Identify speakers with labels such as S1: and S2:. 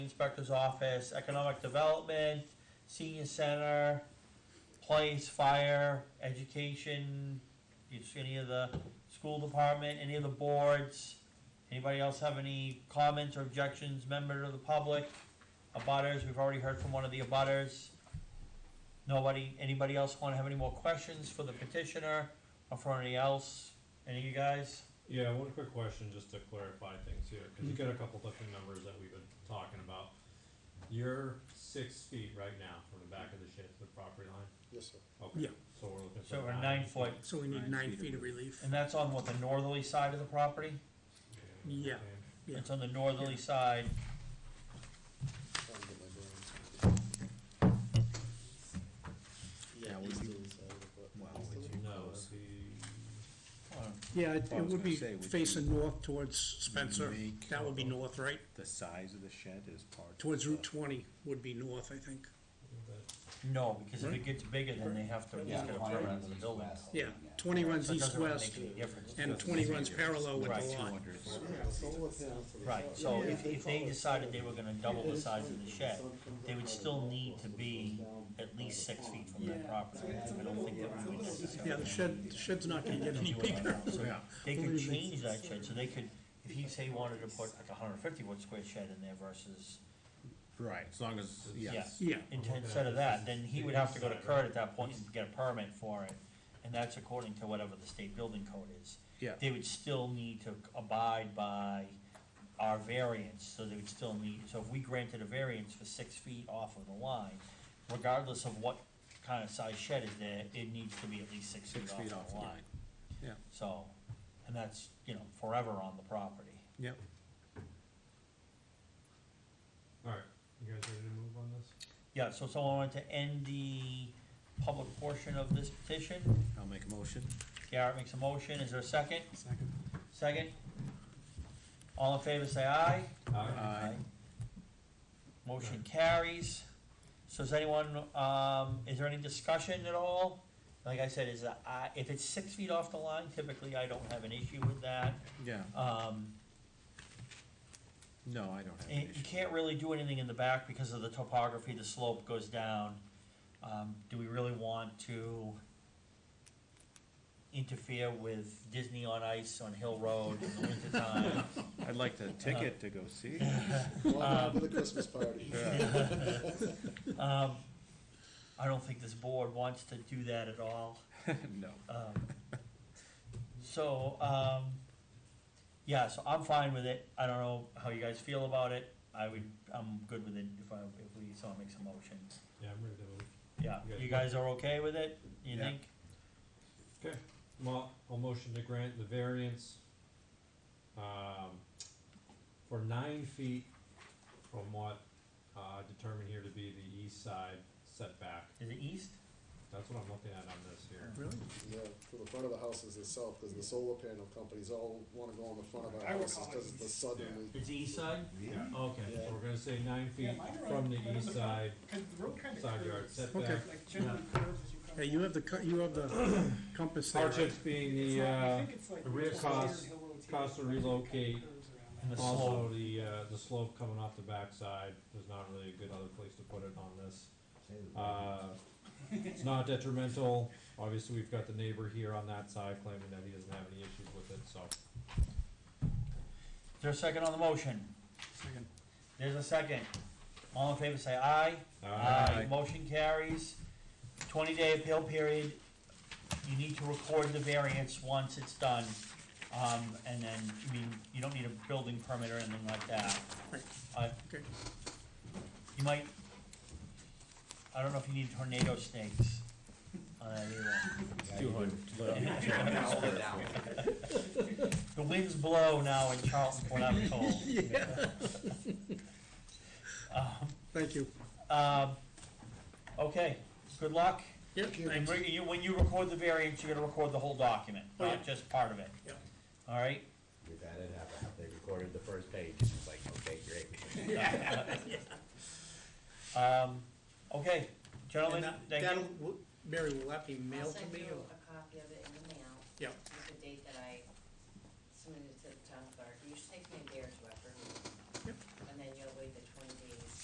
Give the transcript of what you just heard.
S1: Inspector's Office, Economic Development, Senior Center, Police, Fire, Education, it's any of the school department, any of the boards. Anybody else have any comments or objections, member of the public? Abutters, we've already heard from one of the abutters. Nobody, anybody else wanna have any more questions for the petitioner or for any else? Any of you guys?
S2: Yeah, one quick question just to clarify things here, because you got a couple different numbers that we've been talking about. You're six feet right now from the back of the shed to the property line?
S3: Yes, sir.
S2: Okay,
S4: Yeah.
S2: so we're looking for.
S1: So we're nine foot,
S4: So we need
S5: Nine
S4: nine
S5: feet
S4: feet of
S5: of
S4: relief.
S1: and that's on what, the northerly side of the property?
S4: Yeah. Yeah.
S1: It's on the northerly side.
S3: Trying to get my bearings.
S5: Yeah,
S3: Yeah,
S5: we
S3: east
S5: do-
S3: of the side of the foot-
S5: Wow,
S3: east of
S5: we
S3: the-
S5: do-
S2: No,
S5: Close.
S2: the,
S1: Hold on.
S4: Yeah, it
S5: I
S4: it
S5: was
S4: would
S5: gonna
S4: be
S5: say, would you-
S4: facing north towards Spencer.
S5: Make-
S4: That would be north, right?
S5: The size of the shed is part.
S4: Towards Route twenty would be north, I think.
S2: that-
S1: No, because if it gets bigger, then they have to
S4: Yeah.
S1: just get a turnaround to the building. So
S4: Yeah, twenty runs
S1: it doesn't really
S4: east-west
S1: make any difference.
S4: and twenty runs parallel with the
S1: Right.
S4: lot.
S3: Yeah, solar panels for the
S1: Right,
S3: front.
S1: so
S3: Yeah,
S1: if, if they
S3: call it-
S1: decided they were gonna double the size of the shed,
S3: sun comes
S1: they
S3: up
S1: would
S3: out of
S1: still
S3: the
S1: need
S3: wall,
S1: to
S3: so it
S1: be
S3: goes down
S1: at least
S3: by the
S1: six
S3: pond.
S1: feet from that property. I don't think that we would
S4: Yeah, the
S1: necessarily
S4: shed, the shed's not gonna get any
S1: do it like
S4: bigger.
S1: that. So
S5: Yeah.
S1: They could change that shed, so they could, if he say he wanted to put like a hundred fifty foot square shed in there versus,
S4: Oh,
S5: Right, as long as, yes.
S4: Yeah,
S1: in- instead of that, then he would have to go to Kurt at that point and get a permit for it. And that's according to whatever the state building code is.
S5: Yeah.
S1: They would still need to abide by our variance, so they would still need, so if we granted a variance for six feet off of the line, regardless of what kind of size shed is there, it needs to be at least six feet
S5: Six feet
S1: off of the line.
S5: Yeah.
S1: So, and that's, you know, forever on the property.
S5: Yep.
S2: Alright, you guys ready to move on this?
S1: Yeah, so someone wanted to end the public portion of this petition?
S5: I'll make a motion.
S1: Garrett makes a motion, is there a second? Second. Second? All in favor, say aye.
S2: Alright,
S5: Aye.
S1: Motion carries. So is anyone, um, is there any discussion at all? Like I said, is, uh, I- if it's six feet off the line, typically I don't have an issue with that.
S5: Yeah,
S1: Um,
S5: no, I don't have
S1: and
S5: an
S1: you
S5: issue.
S1: can't really do anything in the back because of the topography, the slope goes down. Um, do we really want to interfere with Disney on Ice on Hill Road in the wintertime?
S5: I'd like the ticket to go see. it.
S3: Well, after the Christmas party.
S5: Yeah.
S1: Um, I don't think this board wants to do that at all.
S5: No.
S1: Um, so, um, yeah, so I'm fine with it. I don't know how you guys feel about it. I would, I'm good with it if I, if we, someone makes a motion.
S2: yeah, I'm ready to move.
S1: Yeah, you guys are okay with it, you
S5: Yeah.
S1: think?
S2: Okay, well, I'll motion to grant the variance, um, for nine feet from what, uh, determined here to be the east side setback.
S1: Is it east?
S2: That's what I'm looking at on this here.
S4: really?
S3: Yeah, for the front of the houses itself, because the solar panel companies all wanna go on the front of our
S6: I
S3: houses,
S6: recall
S3: because it's the southern,
S1: It's the east side?
S2: Yeah.
S1: Okay.
S3: Yeah.
S2: So we're gonna say nine
S6: Yeah,
S2: feet
S6: mine are
S2: from
S6: on-
S2: the
S6: right on
S2: east
S6: the
S2: side,
S6: Cause the road kinda
S2: side yard
S6: curves,
S2: setback.
S4: Okay.
S6: like generally curves as you come.
S4: Hey, you have the, co- you have the compass there. right?
S2: Hardships being
S6: It's
S2: the,
S6: not- I
S2: uh,
S6: think it's like
S2: the rear
S6: Richard
S2: cost-
S6: Hill Road's here,
S2: cost to
S6: it kinda
S2: relocate
S6: curves around
S1: And
S6: that.
S1: the
S2: also
S1: slope.
S2: the, uh, the slope coming off the backside, there's not really a good other place to put it on this. Uh, it's not detrimental, obviously, we've got the neighbor here on that side claiming that he doesn't have any issues with it, so.
S1: Is there a second on the motion?
S4: Second.
S1: There's a second. All in favor, say aye.
S5: Aye.
S1: Motion carries. Twenty-day appeal period. You need to record the variance once it's done. Um, and then, I mean, you don't need a building permit or anything like that.
S4: Right.
S1: Uh,
S4: Okay.
S1: you might, I don't know if you need tornado stakes on that either.
S5: Two hundred.
S1: The winds blow now in Charlton, from what I'm told. Um,
S4: Thank you.
S1: Um, okay, good luck.
S4: Yeah,
S1: And
S4: thanks.
S1: re- you- when you record the variance, you're gonna record the whole document,
S4: Oh, yeah.
S1: not just part of it.
S4: Yeah.
S1: All right,
S7: We've had it happen, they recorded the first page, and it's like, okay, great.
S1: um, okay,
S4: And uh,
S1: gentlemen,
S4: that-
S1: thank
S4: that'll-
S1: you.
S4: w- Mary, will that be mailed to me
S8: I'll send you
S4: or?
S8: a copy of it in the mail.
S4: Yeah.
S8: With the date that I submitted to the town clerk. You should take me a beer